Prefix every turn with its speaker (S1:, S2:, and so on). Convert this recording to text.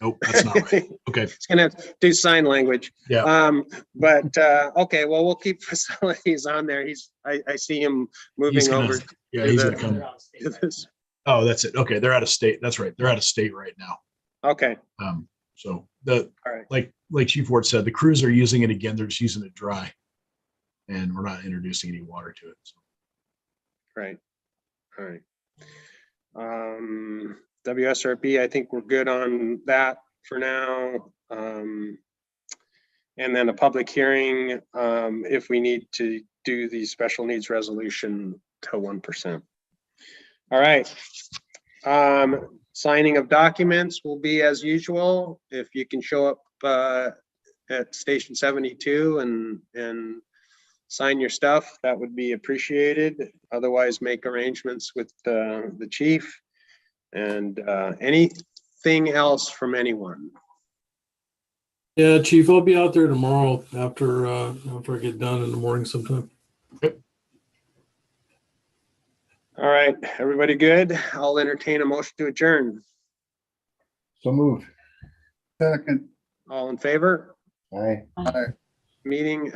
S1: Nope, that's not right. Okay,
S2: It's gonna do sign language.
S1: Yeah.
S2: Um, but, uh, okay, well, we'll keep facilities on there. He's, I, I see him
S1: He's
S2: moving
S1: gonna-
S2: over
S1: yeah,
S2: Do
S1: he's
S2: the-
S1: gonna come.
S2: to this.
S1: Oh, that's it. Okay, they're out of state. That's right. They're out of state right now.
S2: Okay,
S1: Um, so the,
S2: All right.
S1: like, like Chief Ward said, the crews are using it again. They're just using it dry. And we're not introducing any water to it. So
S2: great. All right. Um, WSRB, I think we're good on that for now. Um, and then a public hearing, um, if we need to do the special needs resolution to one percent. All right. Um, signing of documents will be as usual. If you can show up, uh, at station seventy-two and, and sign your stuff, that would be appreciated. Otherwise, make arrangements with, uh, the chief. And, uh, anything else from anyone?
S3: Yeah, Chief, I'll be out there tomorrow after, uh, after I get done in the morning sometime.
S2: All right, everybody good? I'll entertain a motion to adjourn.
S4: So moved. Second.
S2: All in favor?
S4: Aye.
S2: Meeting